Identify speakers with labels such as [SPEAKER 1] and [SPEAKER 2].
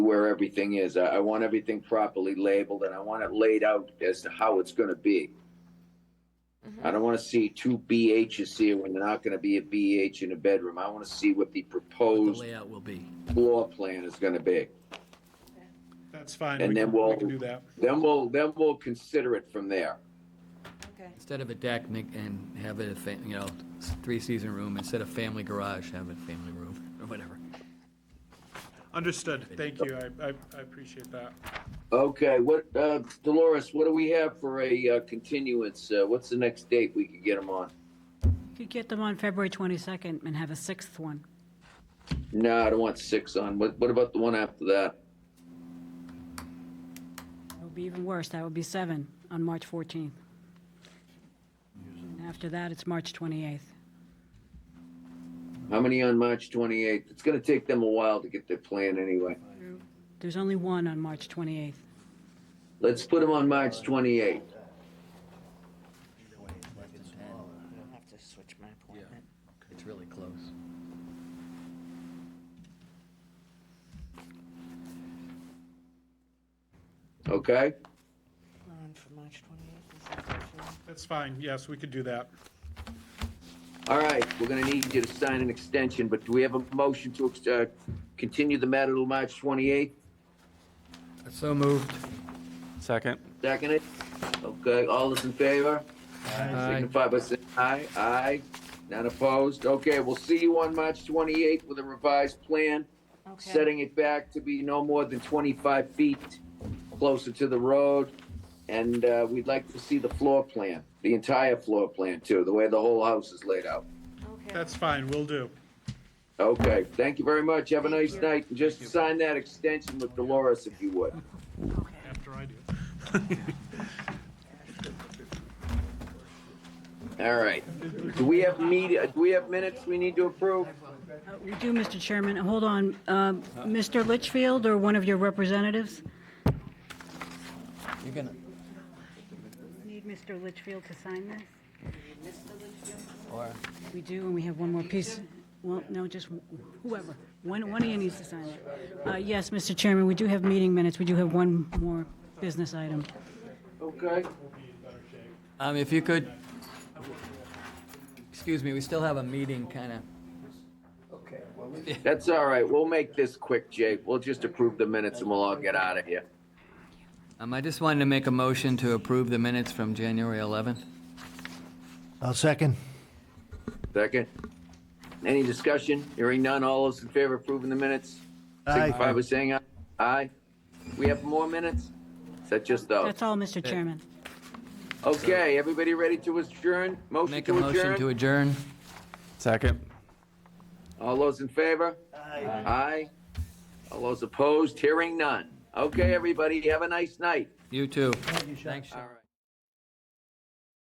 [SPEAKER 1] where everything is. I, I want everything properly labeled and I want it laid out as to how it's gonna be. I don't wanna see two BHs here when they're not gonna be a BH in a bedroom. I wanna see what the
[SPEAKER 2] the
[SPEAKER 1] proposed
[SPEAKER 2] layout will be.
[SPEAKER 1] floor plan is gonna be.
[SPEAKER 3] That's fine.
[SPEAKER 1] And
[SPEAKER 3] We
[SPEAKER 1] then
[SPEAKER 3] can-
[SPEAKER 1] we'll-
[SPEAKER 3] We can do that.
[SPEAKER 1] Then we'll, then we'll consider it from there.
[SPEAKER 4] Okay.
[SPEAKER 2] Instead of a deck, make, and have it, a fa- you know, three-season room, instead of family garage, have a family room, or whatever.
[SPEAKER 3] Understood. Thank you. I, I, I appreciate that.
[SPEAKER 1] Okay, what, uh, Dolores, what do we have for a uh, continuance? Uh, what's the next date we could get them on?
[SPEAKER 5] Could get them on February 22nd and have a sixth one.
[SPEAKER 1] No, I don't want six on. What, what about the one after that?
[SPEAKER 5] It would be even worse, that would be seven on March 14th. After that, it's March 28th.
[SPEAKER 1] How many on March twenty-eighth? It's gonna take them a while to get their plan anyway.
[SPEAKER 5] There's only one on March 28th.
[SPEAKER 1] Let's put them on March twenty-eighth.
[SPEAKER 4] I don't have to switch my appointment.
[SPEAKER 2] It's really close.
[SPEAKER 1] Okay,
[SPEAKER 4] We're on for March 28th. Is that good for you?
[SPEAKER 3] That's fine. Yes, we could do that.
[SPEAKER 1] all right. We're gonna need you to sign an extension, but do we have a motion to ex- uh, continue the matter till March twenty-eighth?
[SPEAKER 2] So moved.
[SPEAKER 6] Second.
[SPEAKER 1] Second it? Okay, all those in favor?
[SPEAKER 2] Aye.
[SPEAKER 1] Signify by saying aye, aye. None opposed? Okay, we'll see you on March twenty-eighth with a revised plan,
[SPEAKER 4] Okay.
[SPEAKER 1] setting it back to be no more than twenty-five feet closer to the road. And, uh, we'd like to see the floor plan, the entire floor plan too, the way the whole house is laid out.
[SPEAKER 4] Okay.
[SPEAKER 3] That's fine. we Will do.
[SPEAKER 1] Okay, thank you very much. Have a
[SPEAKER 4] Thank
[SPEAKER 1] nice
[SPEAKER 4] you.
[SPEAKER 1] night. And Just sign that extension with Dolores if you would.
[SPEAKER 4] Okay.
[SPEAKER 3] After I do.
[SPEAKER 1] All right. Do we have meet, do we have minutes we need to approve?
[SPEAKER 5] Uh, We do, Mr. Chairman, hold on, Um, Mr. Litchfield or one of your representatives?
[SPEAKER 2] You're gonna,
[SPEAKER 5] Need Mr. Litchfield to sign this?
[SPEAKER 2] or,
[SPEAKER 5] We do, and we have one more piece. Well, no, just whoever. One, one of you needs to sign it. Uh, Yes, Mr. Chairman, we do have meeting minutes. We do have one more business item.
[SPEAKER 1] Okay.
[SPEAKER 2] um, if you could, excuse me, we still have a meeting, kinda.
[SPEAKER 1] That's all right. We'll make this quick, Jake. We'll just approve the minutes and we'll all get out of here.
[SPEAKER 2] Um, I just wanted to make a motion to approve the minutes from January 11th.
[SPEAKER 7] I'll second.
[SPEAKER 1] Second. Any discussion? Hearing none. All those in favor of approving the minutes?
[SPEAKER 7] Aye.
[SPEAKER 1] Signify by saying aye. Aye. We have more minutes? Is that just those?
[SPEAKER 5] That's all, Mr. Chairman.
[SPEAKER 1] Okay, everybody ready to adjourn? Motion
[SPEAKER 2] Make a
[SPEAKER 1] to
[SPEAKER 2] motion to
[SPEAKER 1] adjourn?
[SPEAKER 2] adjourn.
[SPEAKER 6] Second.
[SPEAKER 1] All those in favor? Aye. Aye. All those opposed? Hearing none. Okay, everybody, have a nice night.
[SPEAKER 2] You too. Thanks, Sean.
[SPEAKER 1] All right.